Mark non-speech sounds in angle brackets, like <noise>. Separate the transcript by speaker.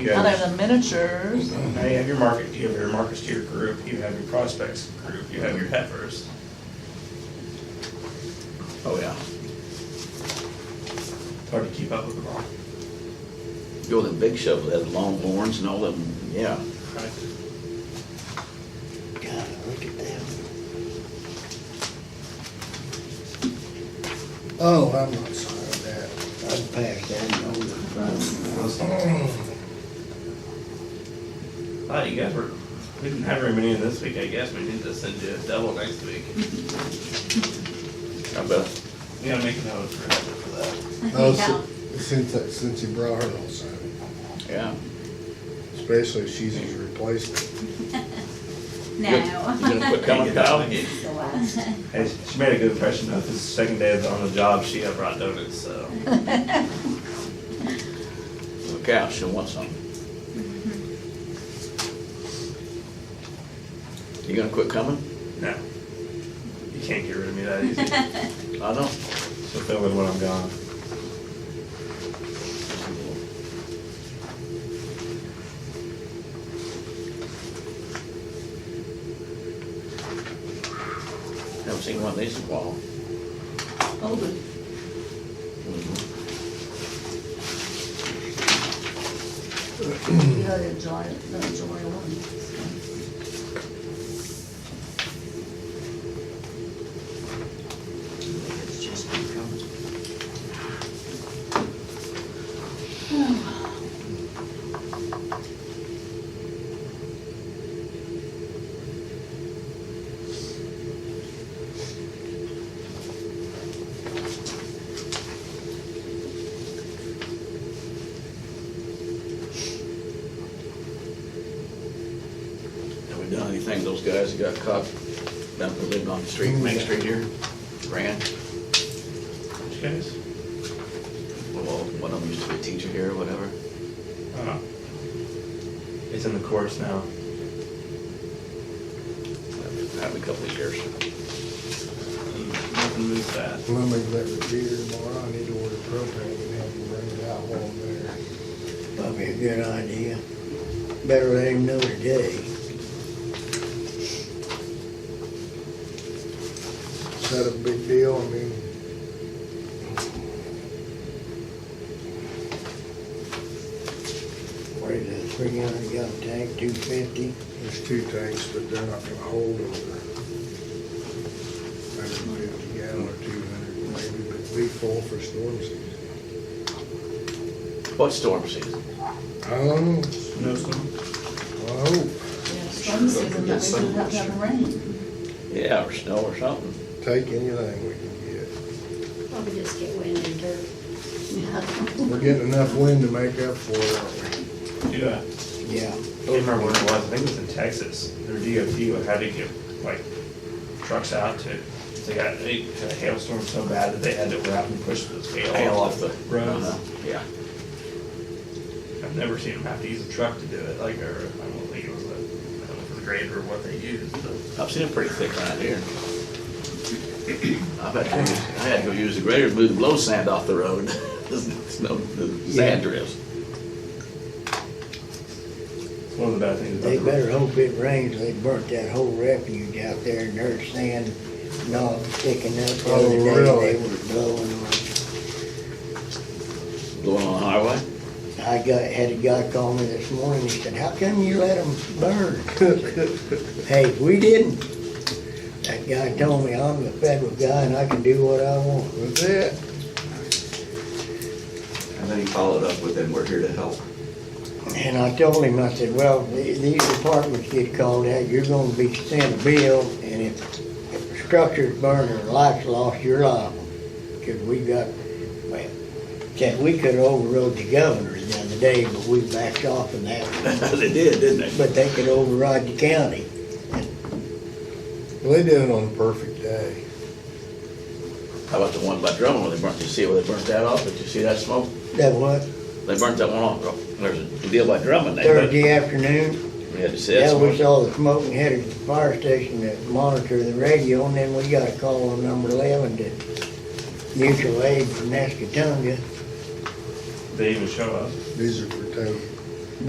Speaker 1: Other than miniatures,
Speaker 2: Now you have your market, you have your markets to your group, you have your prospects group, you have your heifers. Oh, yeah. It's hard to keep up with them all.
Speaker 3: Go with the big shovel, that longhorns and all of them, yeah.
Speaker 4: God, look at them. Oh, I'm not sorry of that. I'm packed that over the front.
Speaker 2: Oh, you guys were, we didn't have very many in this week, I guess, we need to send you a double next week.
Speaker 3: I bet.
Speaker 2: We gotta make a note for for that.
Speaker 4: Oh, si- Since, I- since you brought her on, Simon,
Speaker 3: Yeah.
Speaker 4: especially if she's his replacement.
Speaker 3: You gonna
Speaker 2: <laughs>
Speaker 5: No.
Speaker 3: quit coming, Kyle?
Speaker 2: Hey, she made a good impression, though, this is the second day on the job, she had brought donuts, so.
Speaker 3: Look out, she'll want some. You gonna quit coming?
Speaker 2: No. You can't get rid of me that easy.
Speaker 3: I don't.
Speaker 2: So fill in when I'm gone.
Speaker 3: Haven't seen one of these in a while.
Speaker 1: older. You gotta enjoy, it, gotta enjoy one.
Speaker 3: Have we done anything, those guys that got caught down there living on the street, Main Street here? Ran,
Speaker 2: Which guys?
Speaker 3: well, one of them used to be a teacher here or whatever.
Speaker 2: Uh-huh. It's in the course now.
Speaker 3: Happened a couple of years.
Speaker 2: Nothing moves fast.
Speaker 4: Let me let her be here tomorrow, I need to order propane and have them bring it out while I'm there.
Speaker 6: Probably a good idea. Better let him know today.
Speaker 4: Is that a big deal? I mean,
Speaker 6: What is it, three hundred gallon tank, two fifty?
Speaker 4: there's two tanks, but they're not gonna hold over. Hundred and fifty gallon or two hundred maybe, but be full for storm season.
Speaker 3: What storm season?
Speaker 4: I don't know.
Speaker 2: No storm?
Speaker 4: I hope.
Speaker 1: Yeah, Some season that we didn't have to have rain.
Speaker 3: Yeah, or snow or something.
Speaker 4: Take anything we can get.
Speaker 5: Probably just get wind and dirt.
Speaker 1: Yeah.
Speaker 4: We're getting enough wind to make up for it, aren't
Speaker 2: Do I?
Speaker 6: Yeah.
Speaker 2: I can't remember where it was, I think it was in Texas, their DOT would have to get, like, trucks out to, they got, they had a hailstorm so bad that they had to wrap and push the hail.
Speaker 3: Hail off the.
Speaker 2: Roads.
Speaker 3: Uh-huh, Yeah.
Speaker 2: I've never seen them have to use a truck to do it, like, or, I don't think it was a, I don't know if it was a grader or what they used, but.
Speaker 3: I've seen it pretty thick around here. I've had to, use- I had to go use the grader to move the blow sand off the road. <laughs> There's no, the sand drifts.
Speaker 2: It's one of the bad things about
Speaker 6: They
Speaker 2: the.
Speaker 6: better hope it rains, they burnt that whole refuge out there and their sand not sticking up. The other
Speaker 4: Oh,
Speaker 6: day,
Speaker 4: really?
Speaker 6: They were blowing on.
Speaker 3: Blowing on the highway. <laughs>
Speaker 6: I got, had a guy call me this morning, he said, how come you let them burn? <laughs> Hey, we didn't. That guy told me, I'm the federal guy and I can do what I want.
Speaker 4: we? That's it.
Speaker 7: And then he followed up with, and we're here to help.
Speaker 6: And I told him, I said, well, th- these departments get called out, you're gonna be sent a bill, and if, if the structure's burned or lights lost, you're liable. Cause we got, well, said, we could've overrode the governor the other day, but we backed off on that,
Speaker 3: They did, didn't they?
Speaker 6: but they could override the county.
Speaker 4: Well, They did it on a perfect day.
Speaker 3: How about the one by Drummond where they burnt, you see where they burnt that off? Did you see that smoke?
Speaker 6: That what,
Speaker 3: They burnt that one off. There's a deal by Drummond. They burnt-
Speaker 6: Thursday afternoon?
Speaker 3: We had to see that
Speaker 6: Yeah, we
Speaker 3: smoke.
Speaker 6: saw the smoke and headed to the fire station to monitor the radio, and then we got a call on number eleven to mutual aid from Nescatunga.
Speaker 2: They even show up.
Speaker 4: These are for town.